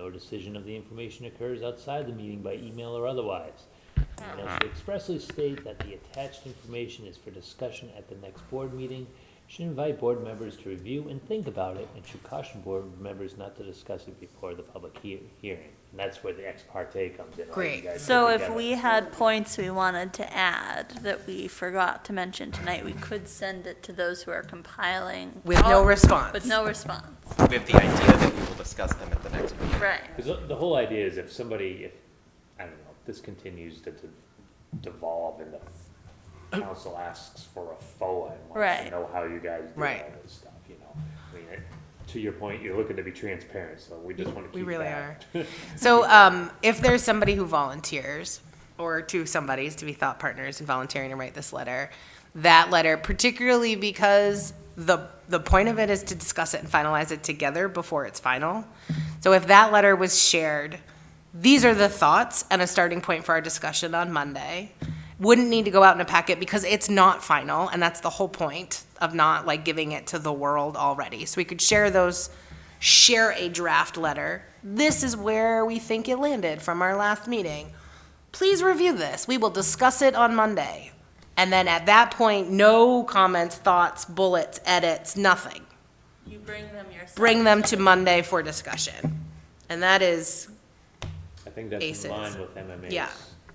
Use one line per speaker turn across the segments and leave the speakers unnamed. or decision of the information occurs outside the meeting by email or otherwise. And
Uh-huh.
I should expressly state that the attached information is for discussion at the next board meeting, should invite board members to review and think about it, and should caution board members not to discuss it before the public he- hearing. And that's where the ex parte comes in. all you
Great.
guys put
So if
together.
we had points we wanted to add that we forgot to mention tonight, we could send it to those who are compiling.
With no
all-
response.
With no response,
with the idea that we will discuss them at the next meeting.
right.
Because the whole idea is if somebody, if, I don't know, if this continues to de- devolve and the council asks for a FOA and wants to
Right.
know how you guys do all
Right.
this stuff, you know? I mean, it- to your point, you're looking to be transparent, so we just want to keep
We really
that.
are. So um, if there's somebody who volunteers, or two somebodies to be thought partners and volunteering to write this letter, that letter, particularly because the, the point of it is to discuss it and finalize it together before it's final. So if that letter was shared, these are the thoughts and a starting point for our discussion on Monday. Wouldn't need to go out in a packet because it's not final, and that's the whole point of not like giving it to the world already. So we could share those share a draft letter. This is where we think it landed from our last meeting. Please review this. We will discuss it on Monday. And then at that point, no comments, thoughts, bullets, edits, nothing.
You bring them yourself.
Bring them to Monday for discussion. And that is,
I think that's in
Aces.
line with MMA's.
Yeah.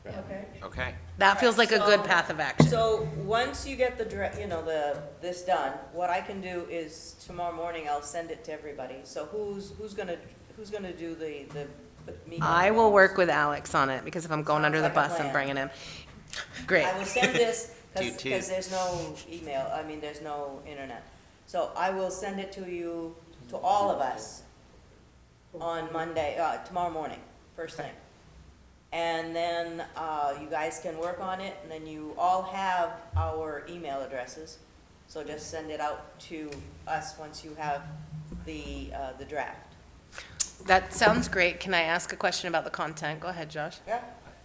recommendation.
Okay.
that feels like a good path of action.
So, once you get the, dra- you know, the, this done, what I can do is tomorrow morning, I'll send it to everybody. So who's, who's gonna, who's gonna do the, the the meeting?
I will work with Alex on it because if I'm going under the
Sounds like a
bus, I'm
plan.
bringing him. Great.
I will send this,
You
because,
too.
there's no email, I mean, there's no internet. So I will send it to you, to all of us, on Monday, uh, tomorrow morning, first thing. And then, uh, you guys can work on it, and then you all have our email addresses. So just send it out to us once you have the, uh, the draft.
That sounds great. Can I ask a question about the content? Go ahead, Josh.
Yeah?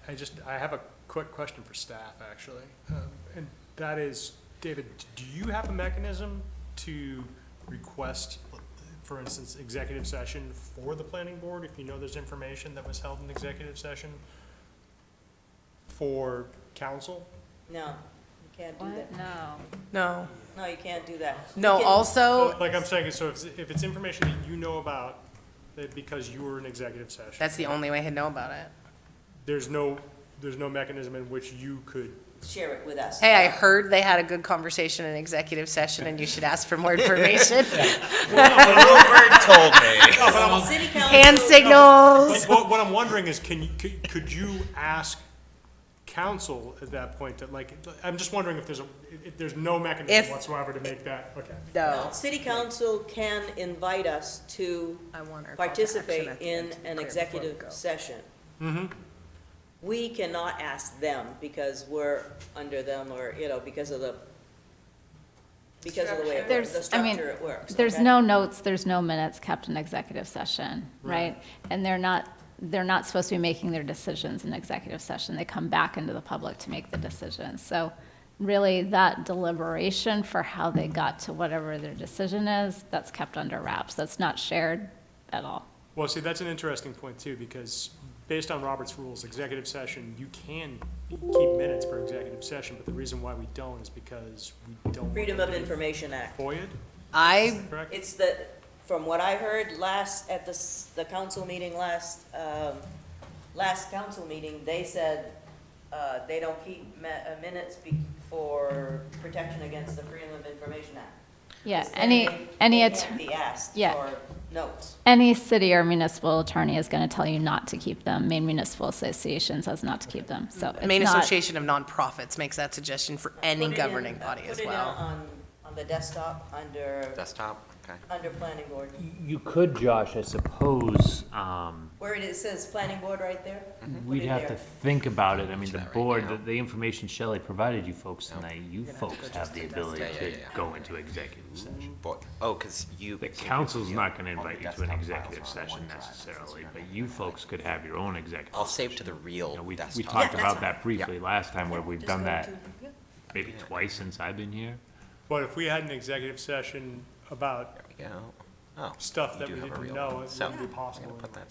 I just, I have a quick question for staff, actually. Um, And that is, David, do you have a mechanism to request, for instance, executive session for the planning board? If you know there's information that was held in executive session for council?
No, you can't do that.
No.
No.
No, you can't do that. You
No,
can-
also,
Like I'm saying, so if, if it's information that you know about, that because you were in executive session,
that's the only way he'd know about it.
there's no, there's no mechanism in which you could
Share it with us.
Hey, I heard they had a good conversation in executive session and you should ask for more information.
Bluebird told me.
City council.
Hand signals.
But What, what I'm wondering is, can you, could, could you ask council at that point that like, I'm just wondering if there's a, if there's no
If-
mechanism whatsoever to make that, okay.
No.
City council can invite us to
I want our call to action at
participate
the
in
end to
an
clear
executive
before we go.
session. We cannot ask them because we're under them or, you know, because of the, because of the way, it works,
There's-
the
I mean,
structure it works.
There's
okay?
no notes, there's no minutes kept in executive session, right? And they're not, they're not supposed to be making their decisions in executive session. They come back into the public to make the decisions. So really, that deliberation for how they got to whatever their decision is, that's kept under wraps. That's not shared at all.
Well, see, that's an interesting point too, because based on Robert's rules, executive session, you can keep minutes for executive session, but the reason why we don't is because we don't. want
Freedom
them
of
to be
Information Act.
FOIA'd,
I,
correct?
It's the, from what I heard last, at the, s- the council meeting last, um, last council meeting, they said, uh, they don't keep ma- uh, minutes be- for protection against the Freedom of Information Act.
Yeah, any,
They-
any,
They
att-
can't be asked
yeah.
for notes.
any city or municipal attorney is going to tell you not to keep them. Maine Municipal Association says not to keep them, so it's
Maine
not-
Association of Nonprofits makes that suggestion for any
Put it in-
governing
uh,
body as
Put it in
well.
on, on the desktop, under,
Desktop, okay.
under planning board,
You could, Josh, I suppose, um,
where it is- says planning board right there. put
we'd
it
have to
there.
think about it. I mean, the
that right
board,
now.
the, the information Shelley provided you folks tonight, you folks have the ability
Yeah, yeah,
to
yeah.
go into executive session.
But, oh, because you.
The
so you
council's
review
not gonna
all the
invite you to an
desktop files
executive
are on
session
OneDrive, so it's
necessarily,
not
but
gonna-
you folks could have your own executive.
I'll save to the real
You know, we,
desktop.
we talked
Yeah,
about
that's
that briefly last time where we've
Just
done
go
that
to- yeah.
maybe twice since I've been here.
But if we had an executive session about
There we go. Oh.
stuff
you
that
do
we
have a
didn't
real
know,
one.
it
So,
wouldn't be
I'm
possible.
gonna put that